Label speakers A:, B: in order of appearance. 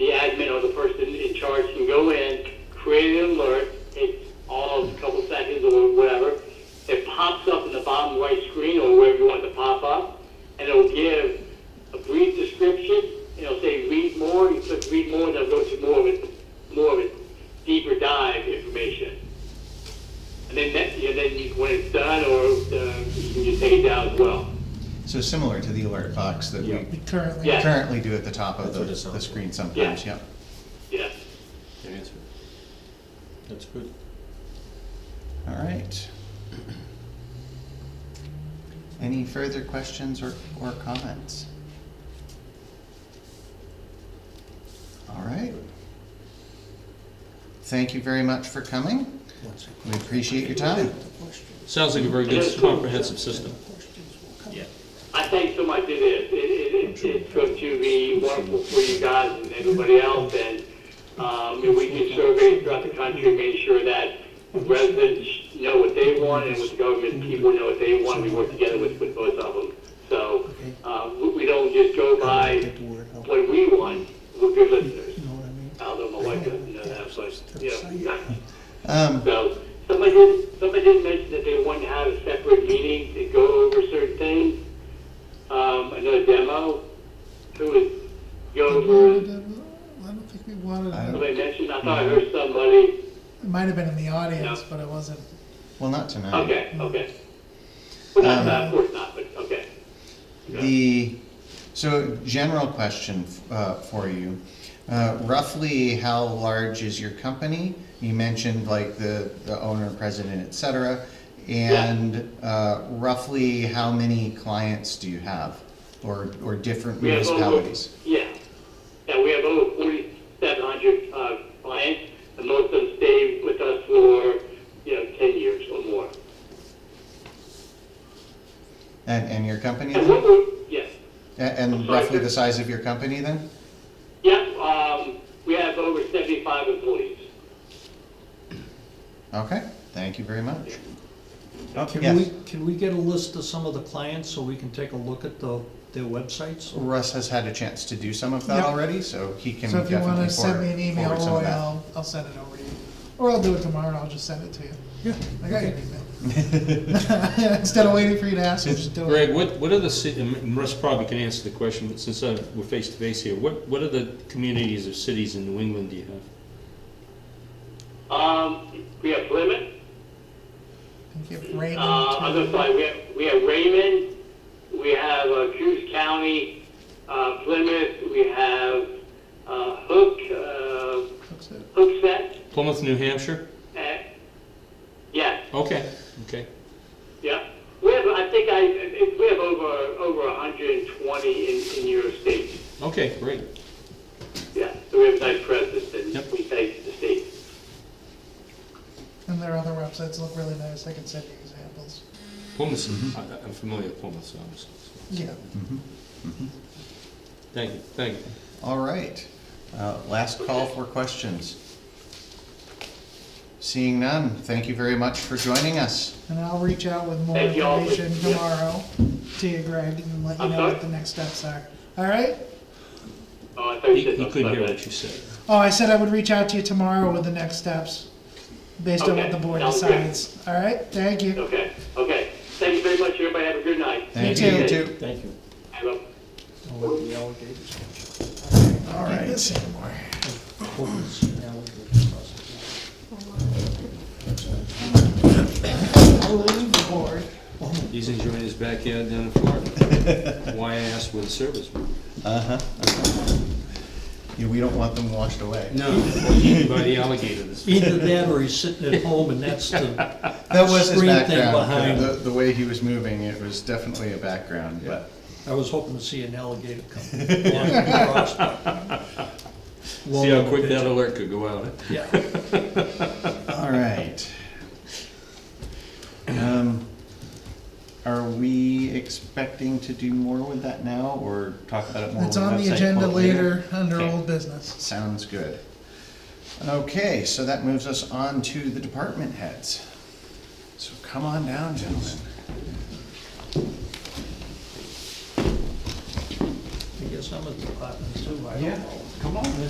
A: know, the person in charge can go in, create an alert, takes all of a couple seconds or whatever. It pops up in the bottom right screen or wherever you want it to pop up, and it'll give a brief description. and It'll say read more. You click read more, and it'll go to more of it, more of it, deeper dive information. And then that, yeah, then you, when it's done, or uh, you can just take it down as well.
B: So similar to the alert box that
C: Yeah.
B: we
D: currently.
A: Yeah.
B: currently do at the top of
C: That's
B: the,
C: what it sounds
B: the
C: like.
B: screen sometimes,
A: Yeah.
B: yep.
A: Yeah.
C: Good answer. That's good.
B: All right. Any further questions or, or comments? All right. Thank you very much for coming.
D: Once we-
B: We appreciate your time.
D: The questions-
C: Sounds like a very good comprehensive system.
D: the questions will come.
A: I thank so much it is. It, it, it, it's going to be wonderful for you guys and everybody else, and, um, and we do surveys throughout the country, make sure that residents know what they want and with the government people know what they want. We work together with, with both of them. So, um, we- we don't just go by
D: Get the word out,
A: what we want, we're good listeners.
D: you know what I mean?
A: Although my wife doesn't know that, but, you know.
B: Um,
A: So, somebody did, somebody did mention that they wanted to have a separate meeting to go over certain things, um, another demo, who would go
E: We wanted
A: over,
E: them- I don't think we wanted
B: I
E: them.
A: somebody mentioned, I thought I heard somebody,
E: It might have been in the audience,
A: No.
E: but it wasn't.
B: well, not tonight.
A: okay, okay. Well, not,
B: Um,
A: not- of course not, but, okay.
B: The, so general question uh, for you. Uh, Roughly, how large is your company? You mentioned like the, the owner, president, et cetera. And uh, roughly, how many clients do you have? Or, or different
A: We have over-
B: municipalities?
A: Yeah, yeah, we have over forty-seven hundred, uh, clients, and most of them stay with us for, you know, ten years or more.
B: And, and your company?
A: And
B: then?
A: what we, yes.
B: A- And
A: sorry,
B: roughly
A: sir.
B: the size of your company then?
A: Yeah, um, we have over seventy-five employees.
B: Okay, thank you very much.
F: Can
B: Yes.
F: we, can we get a list of some of the clients so we can take a look at the, their websites?
B: Russ has had a chance to do some of that
E: Yeah.
B: already, so he can
E: So if you wanna
B: definitely
E: send me an
B: forward
E: email,
B: forward some of
E: Roy,
B: that.
E: I'll, I'll send it over to you. Or I'll do it tomorrow, I'll just send it to you.
F: Yeah.
E: I got your email. Instead of waiting for you to ask, I'll just do it.
C: Greg, what, what are the, ci- and Russ probably can answer the question, but since uh, we're face to face here, what, what are the communities or cities in New England do you have?
A: Um, we have Plymouth,
E: And give
A: uh,
E: Raymond
A: other
E: to-
A: side, we have, we have Raymond, we have uh, Cruz County, uh, Plymouth, we have, uh, Hook, uh,
E: that's it.
A: Hookset,
C: Plymouth, New Hampshire?
A: and, yeah,
C: Okay, okay.
A: yeah. We have, I think I, it- we have over, over hundred and twenty in, in your state,
C: Okay, great.
A: yeah. So we have a nice presence and
C: Yep.
A: we thank the state.
E: And their other websites look really nice, I can send you examples.
C: Plymouth, I- I'm familiar with Plymouth, so I'm, so-
E: Yeah,
C: thank you, thank you.
B: All right, Uh, last call for questions. Seeing none, thank you very much for joining us.
E: and I'll reach out with more
A: Thank you all.
E: information
A: Yeah.
E: tomorrow to you, Greg, and let you
A: I'm
E: know what
A: sorry?
E: the next steps are. All right?
A: Oh, I thought you
C: He
A: said
C: he
A: something
C: couldn't hear
A: about
C: what
A: that.
C: you said.
E: Oh, I said I would reach out to you tomorrow with the next steps, based on what
A: Okay,
E: the board
A: sounds good.
E: decides. All right, thank you.
A: Okay, okay. Thank you very much, everybody. Have a good night.
B: Thank
E: You
B: you,
A: too.
B: too.
F: Thank you.
A: I love.
F: I'll let the alligators
B: All right.
E: This anymore.
F: open, see the alligators crossing.
E: I'll leave the board.
C: He's enjoying his backyard down in Florida. Why I asked with the service.
B: Uh-huh. Yeah, we don't want them washed away.
C: No, eaten by the alligator this
F: Either that or he's sitting at home and that's the,
B: That was his
F: Screen thing
B: background,
F: behind.
B: the, the way he was moving, it was definitely a background, but.
F: I was hoping to see an alligator come walking across.
C: See how quick that alert could go out, huh?
F: Yeah.
B: All right. Um, Are we expecting to do more with that now, or talk about it more?
E: It's
B: with
E: on the
B: website
E: agenda
B: quote
E: later, under
B: Okay.
E: old business.
B: Sounds good. Okay, so that moves us on to the department heads. So come on down, gentlemen.
F: I guess I'm a department too, I don't know.
B: come on.